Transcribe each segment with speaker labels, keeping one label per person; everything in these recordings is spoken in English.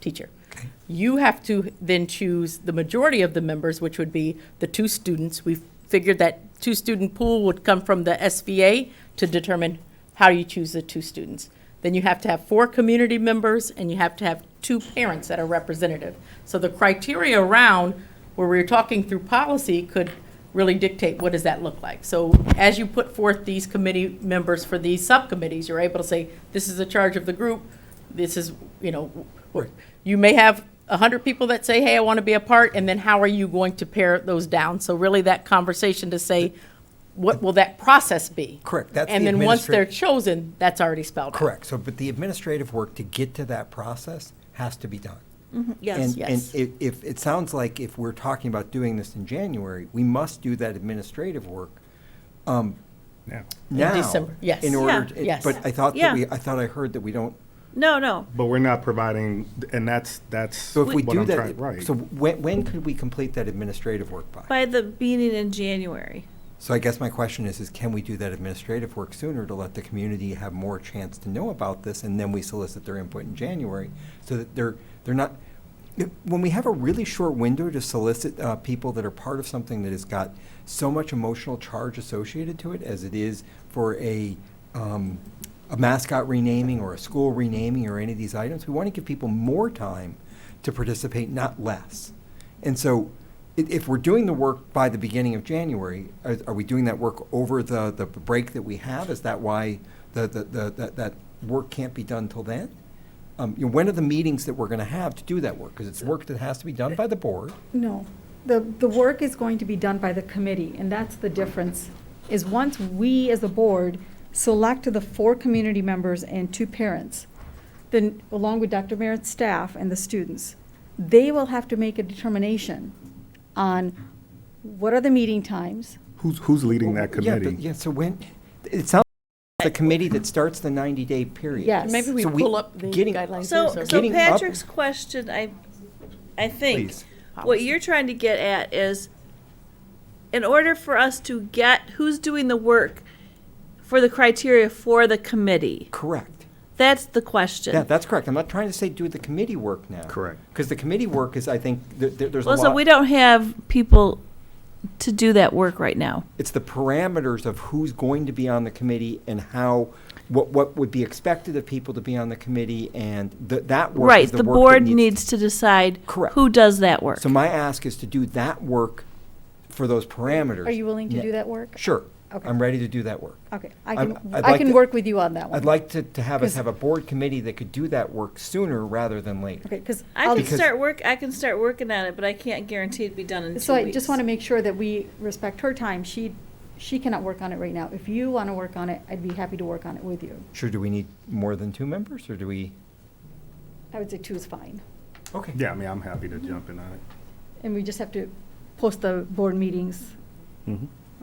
Speaker 1: teacher. You have to then choose the majority of the members, which would be the two students. We figured that two-student pool would come from the SVA to determine how you choose the two students. Then you have to have four community members, and you have to have two parents that are representative. So the criteria around where we're talking through policy could really dictate what does that look like. So as you put forth these committee members for these subcommittees, you're able to say, this is the charge of the group, this is, you know, w- you may have a hundred people that say, hey, I want to be a part, and then how are you going to pare those down? So really that conversation to say, what will that process be?
Speaker 2: Correct, that's
Speaker 1: And
Speaker 2: the
Speaker 1: then once
Speaker 2: administrat-
Speaker 1: they're chosen, that's already spelled out.
Speaker 2: Correct. So, but the administrative work to get to that process has to be done.
Speaker 1: Yes,
Speaker 2: And-
Speaker 1: yes.
Speaker 2: And if, if, it sounds like if we're talking about doing this in January, we must do that administrative work um,
Speaker 3: Yeah.
Speaker 2: now.
Speaker 1: December, yes.
Speaker 2: In order,
Speaker 4: Yeah.
Speaker 2: to-
Speaker 1: Yes.
Speaker 2: but I thought that
Speaker 4: Yeah.
Speaker 2: we, I thought I heard that we don't,
Speaker 4: No, no.
Speaker 3: But we're not providing, and that's, that's
Speaker 2: so if we
Speaker 3: what
Speaker 2: do
Speaker 3: I'm trying,
Speaker 2: that,
Speaker 3: right.
Speaker 2: so when, when could we complete that administrative work by?
Speaker 4: By the meeting in January.
Speaker 2: So I guess my question is, is can we do that administrative work sooner to let the community have more chance to know about this, and then we solicit their input in January, so that they're, they're not, when we have a really short window to solicit uh, people that are part of something that has got so much emotional charge associated to it, as it is for a, um, a mascot renaming or a school renaming or any of these items, we want to give people more time to participate, not less. And so, i- if we're doing the work by the beginning of January, are, are we doing that work over the, the break that we have? Is that why the, the, the, that, that work can't be done till then? Um, you know, when are the meetings that we're gonna have to do that work? Because it's work that has to be done by the board.
Speaker 5: No, the, the work is going to be done by the committee, and that's the difference, is once we, as a board, select the four community members and two parents, then, along with Dr. Merritt's staff and the students, they will have to make a determination on what are the meeting times,
Speaker 3: Who's, who's leading that
Speaker 2: Yeah, but-
Speaker 3: committee?
Speaker 2: Yeah, so when, it sounds like the committee that starts the ninety-day period.
Speaker 5: Yes.
Speaker 1: Maybe we
Speaker 2: So we-
Speaker 1: pull up the
Speaker 2: getting-
Speaker 1: guidelines.
Speaker 4: So,
Speaker 1: here,
Speaker 4: so
Speaker 2: Getting up-
Speaker 4: Patrick's question, I, I think,
Speaker 2: Please.
Speaker 4: what you're trying to get at is, in order for us to get who's doing the work for the criteria for the committee,
Speaker 2: Correct.
Speaker 4: that's the question.
Speaker 2: Yeah, that's correct. I'm not trying to say do the committee work now.
Speaker 3: Correct.
Speaker 2: Because the committee work is, I think, there, there- there's a
Speaker 4: Well,
Speaker 2: lot.
Speaker 4: so we don't have people to do that work right now.
Speaker 2: It's the parameters of who's going to be on the committee and how, what, what would be expected of people to be on the committee and th- that work.
Speaker 4: Right,
Speaker 2: is
Speaker 4: the
Speaker 2: work that
Speaker 4: board needs to decide
Speaker 2: Correct.
Speaker 4: who does that work.
Speaker 2: So my ask is to do that work for those parameters.
Speaker 5: are you willing to do that work?
Speaker 2: Sure.
Speaker 5: Okay.
Speaker 2: I'm ready to do that work.
Speaker 5: Okay, I
Speaker 2: I'm-
Speaker 5: can,
Speaker 2: I'd
Speaker 5: I
Speaker 2: like
Speaker 5: can
Speaker 2: to-
Speaker 5: work with you on that one.
Speaker 2: I'd like to, to have us
Speaker 5: 'Cause-
Speaker 2: have a board committee that could do that work sooner rather than later.
Speaker 5: Okay, because
Speaker 4: I can
Speaker 2: Because-
Speaker 4: start work, I can start working on it, but I can't guarantee it'd be done in two weeks.
Speaker 5: So I just want to make sure that we respect her time. She, she cannot work on it right now. If you want to work on it, I'd be happy to work on it with you.
Speaker 2: Sure, do we need more than two members or do we?
Speaker 5: I would say two is fine.
Speaker 2: Okay.
Speaker 3: Yeah, I mean, I'm happy to jump in on it.
Speaker 5: And we just have to post the board meetings.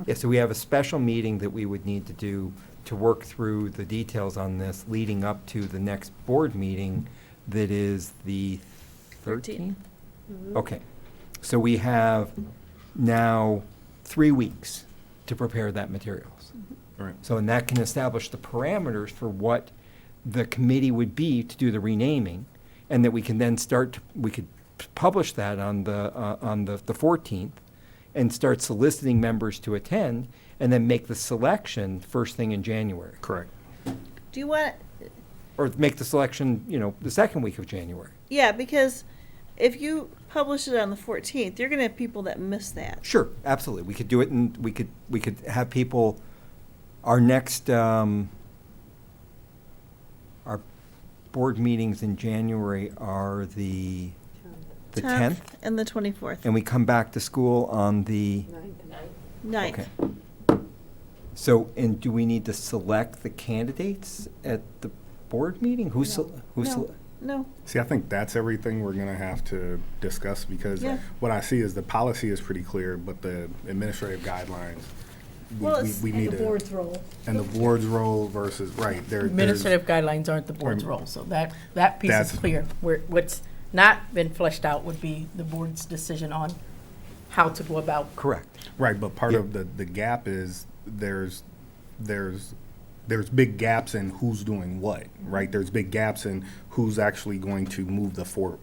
Speaker 2: Yeah, so we have a special meeting that we would need to do to work through the details on this leading up to the next board meeting that is the
Speaker 4: Thirteenth.
Speaker 2: thirteenth? Okay, so we have now three weeks to prepare that materials.
Speaker 3: Right.
Speaker 2: So, and that can establish the parameters for what the committee would be to do the renaming, and that we can then start, to- we could p- publish that on the, uh, on the the 14th, and start soliciting members to attend, and then make the selection first thing in January,
Speaker 3: Correct.
Speaker 4: Do you want,
Speaker 2: or make the selection, you know, the second week of January.
Speaker 4: yeah, because if you publish it on the fourteenth, you're gonna have people that miss that.
Speaker 2: Sure, absolutely, we could do it, and we could, we could have people, our next, um, our board meetings in January are the, the 10th?
Speaker 4: And the twenty-fourth,
Speaker 2: and we come back to school on the,
Speaker 4: ninth.
Speaker 2: okay. So, and do we need to select the candidates at the board meeting? Who's, sel- who's?
Speaker 4: No.
Speaker 2: sel-
Speaker 4: No,
Speaker 3: See, I think that's everything we're gonna have to discuss because
Speaker 4: Yeah.
Speaker 3: what I see is the policy is pretty clear, but the administrative guidelines, we,
Speaker 4: Well,
Speaker 3: we-
Speaker 4: it's-
Speaker 3: we need to.
Speaker 5: role.
Speaker 3: And the board's role versus, right, there, there's,
Speaker 1: Administrative guidelines aren't the board's
Speaker 3: Um,
Speaker 1: role, so that, that piece is
Speaker 3: That's-
Speaker 1: clear. Where, what's not been fleshed out would be the board's decision on how to go about.
Speaker 2: Correct.
Speaker 3: right, but part of the, the gap is there's, there's, there's big gaps in who's doing what, right? There's big gaps in who's actually going to move the for,